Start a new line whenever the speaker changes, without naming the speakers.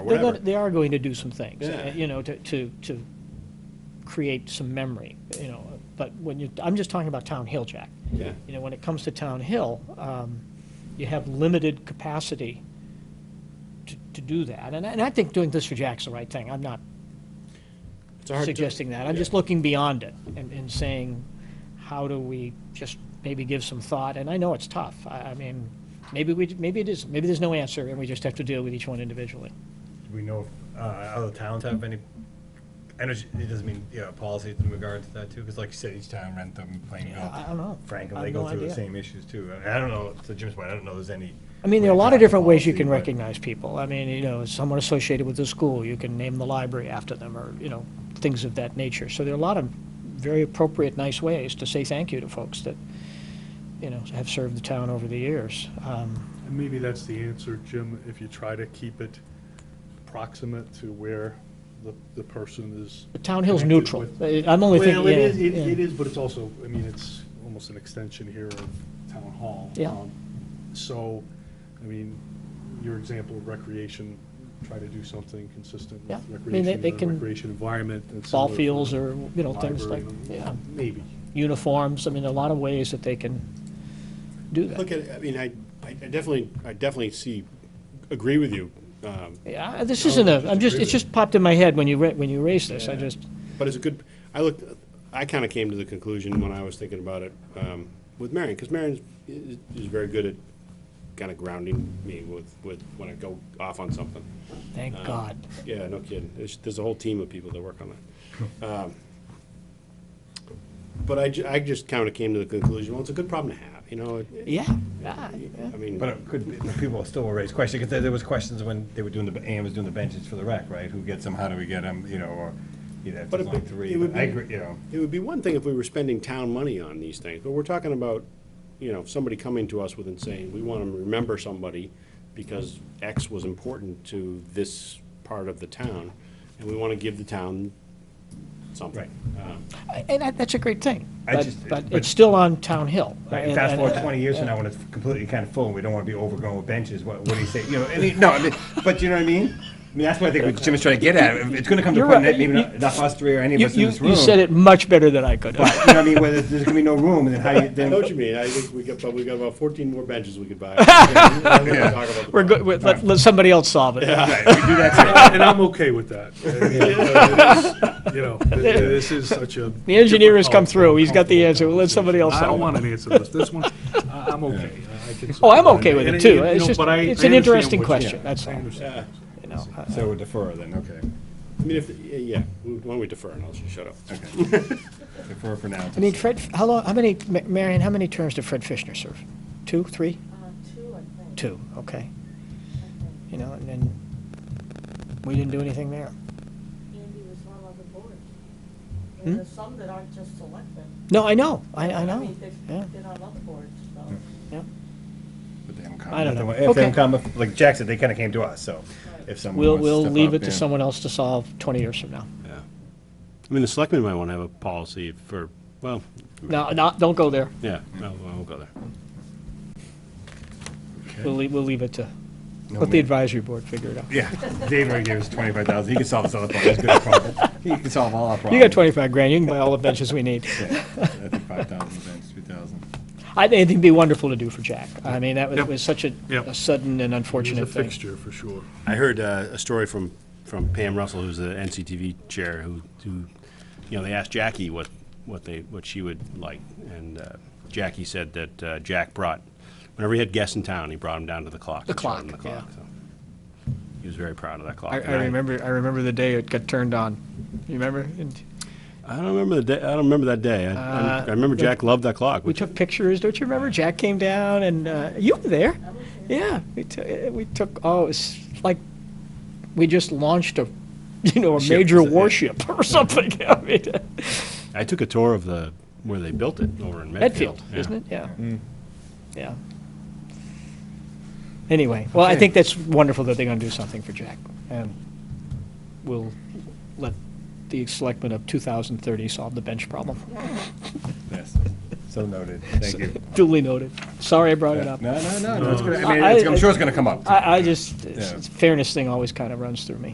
or
They're
whatever.
going, they are going to do some things, uh,
Yeah.
you know, to, to, to create some memory, you know, but when you, I'm just talking about Town Hill, Jack.
Yeah.
You know, when it comes to Town Hill, um, you have limited capacity to, to do that, and, I- and I think doing this for Jack's the right thing, I'm not
It's hard to-
suggesting that, I'm
yeah.
just looking beyond it and, and saying, how do we just maybe give some thought, and I know it's tough, I, I mean, maybe we, maybe it is, maybe there's no answer, and we just have to deal with each one individually.
Do we know if uh, other towns have any, energy, it doesn't mean, you know, policies in regard to that too? Because like you said, each town Rentham, Plainville,
I I don't know.
Franklin,
I
they
have
go
no
through the
idea.
same issues too. I I don't know, to Jim's point, I don't know there's any.
I mean, there are a lot of
clear
different ways you
policy,
can
but-
recognize people. I mean, you know, someone associated with the school, you can name the library after them, or, you know, things of that nature. So there are a lot of very appropriate, nice ways to say thank you to folks that, you know, have served the town over the years. Um,
And maybe that's the answer, Jim, if you try to keep it proximate to where the, the person is.
But Town Hill's
connected
neutral.
with.
Uh, I'm only thinking,
Well, it is, it
yeah,
it
yeah.
is, but it's also, I mean, it's almost an extension here of town hall.
Yeah.
Um, So, I mean, your example of recreation, try to do something consistent
Yeah. I
with
mean, they-
recreation,
they
in a
can-
recreation environment. and
Ball
similar for
fields
the
or, you know, things like,
library.
yeah,
Maybe.
uniforms. I mean, there are a lot of ways that they can do that.
Look at, I mean, I, I definitely, I definitely see, agree with you, um,
Yeah, this
No,
isn't
I
a, I'm
disagree
just, it
with
just popped in my head when you, ra- when you raised this. I
Yeah.
just,
But it's a good, I looked, I kind of came to the conclusion when I was thinking about it um, with Marion, because Marion is is very good at kind of grounding me with, with, when I go off on something.
thank
Um,
God.
Yeah, no kidding. There's, there's a whole team of people that work on that. Um, But I, ju- I just kind of came to the conclusion, well, it's a good problem to have, you know? it- it-
Yeah, yeah, yeah.
I mean.
But it could, be- but people still will raise questions, because there, there was questions when they were doing the, AM was doing the benches for the rec, right? Who gets them, how do we get them, you know, or, you know, if
But
it's
it-
only three,
it would
but I
be-
agree, you know.
It would be one thing if we were spending town money on these things, but we're talking about, you know, somebody coming to us with and saying, we want to remember somebody because X was important to this part of the town, and we want to give the town something. Um,
And that- that's a great thing,
I
but,
just-
but
but-
it's still on Town Hill.
Right,
And-
fast forward
and-
twenty years from now, when it's completely kind of full, and we don't wanna be overgrown with benches, what, what do you say, you know, I mean, no, I mean, but you know what I mean? I mean, that's what I think what Jim is trying to get at, it's gonna come to a
You're
point
right.
that maybe not, not us three or any of
You,
us in
you,
this room.
you said it much better than I could.
But, you know what I mean, whether there's gonna be no room, and then how do you,
I know what
then,
you mean, I think we got, but we got about fourteen more benches we could buy. And then we'll talk about the
We're good, with- let, let somebody else solve it.
right, we do that,
And I'm okay with that. I mean, uh, it is, You know, th- th- this is such a.
The engineer has come
difficult,
through, he's got the
uncomfortable
answer, We'll let somebody else
I don't
solve it.
want an answer to this, this one, I- I'm okay. I- I can-
Oh, I'm okay with
And
it too,
you
it's
know,
just,
but I-
it's
I
an
understand
interesting
what you-
question,
yeah,
that's
I
all,
understand.
Yeah,
you know.
too. so we defer then, okay,
I mean, if, yeah, why don't we defer and I'll just shut up.
okay. Defer for now.
I mean, Fred, how long, how many, Ma- Marion, how many terms did Fred Fishner serve? Two, three?
Uh, Two, I think.
Two, okay. You know, and then, we didn't do anything there.
Andy was on other boards.
Hmm?
And there's some that aren't just selected.
No, I know, I, I
I
know,
mean, they've
yeah,
been on other boards, so.
yeah.
But they haven't come.
I don't know.
If they
Okay.
haven't come, if- like Jack said, they kind of came to us, so if someone
We'll,
wants to
we'll
step
leave
up,
it to
yeah.
someone else to solve 20 years from now.
I mean, the selectmen might want to have a policy for, well,
No, no, don't go there.
yeah, no, I won't go there.
We'll leave, we'll leave it to,
No,
let the
man.
advisory board figure it out.
Yeah, Dave already gave us twenty-five thousand, he can solve this other problem, he's good at problem, he can solve all our problems.
You got 25 grand, you can buy all the benches we need.
Five thousand, thanks, two thousand.
I think it'd be wonderful to do for Jack. I mean, that was-
Yep.
was such a
Yep.
a sudden and
It is a
unfortunate thing.
fixture for sure.
I heard uh, a story from, from Pam Russell, who's the NCTV chair, who, who, you know, they asked Jackie what, what they, what she would like, and uh, Jackie said that uh, Jack brought, whenever he had guests in town, he brought them down to the clock.
The
and showed 'em
clock,
the so. He was very proud of that clock.
I,
and
I remember, I remember the day it got turned on. You remember? And
I don't remember the day, I don't remember that day. I- I,
Uh,
I remember
the-
Jack loved that clock.
We
which-
took pictures, don't you remember? Jack came down and, uh, you were there. Yeah, we took, we took, oh, it's like, we just launched a, you know, a
Ship,
major
is it?
warship or something. I mean,
I took a tour of the, where they built it over in Medfield.
Medfield,
yeah.
isn't it? Yeah.
Mm.
Yeah. Anyway, well, I think that's wonderful that they're going to do something for Jack. And we'll let the selectmen of 2030 solve the bench problem.
Yes, So noted, thank you.
Duly noted. Sorry I brought it
No,
up.
no, no, no, it's gonna, I
No.
mean, it's- I'm sure it's gonna come up.
I, I just, it's-
Yeah.
it's- fairness thing always kind of runs through me.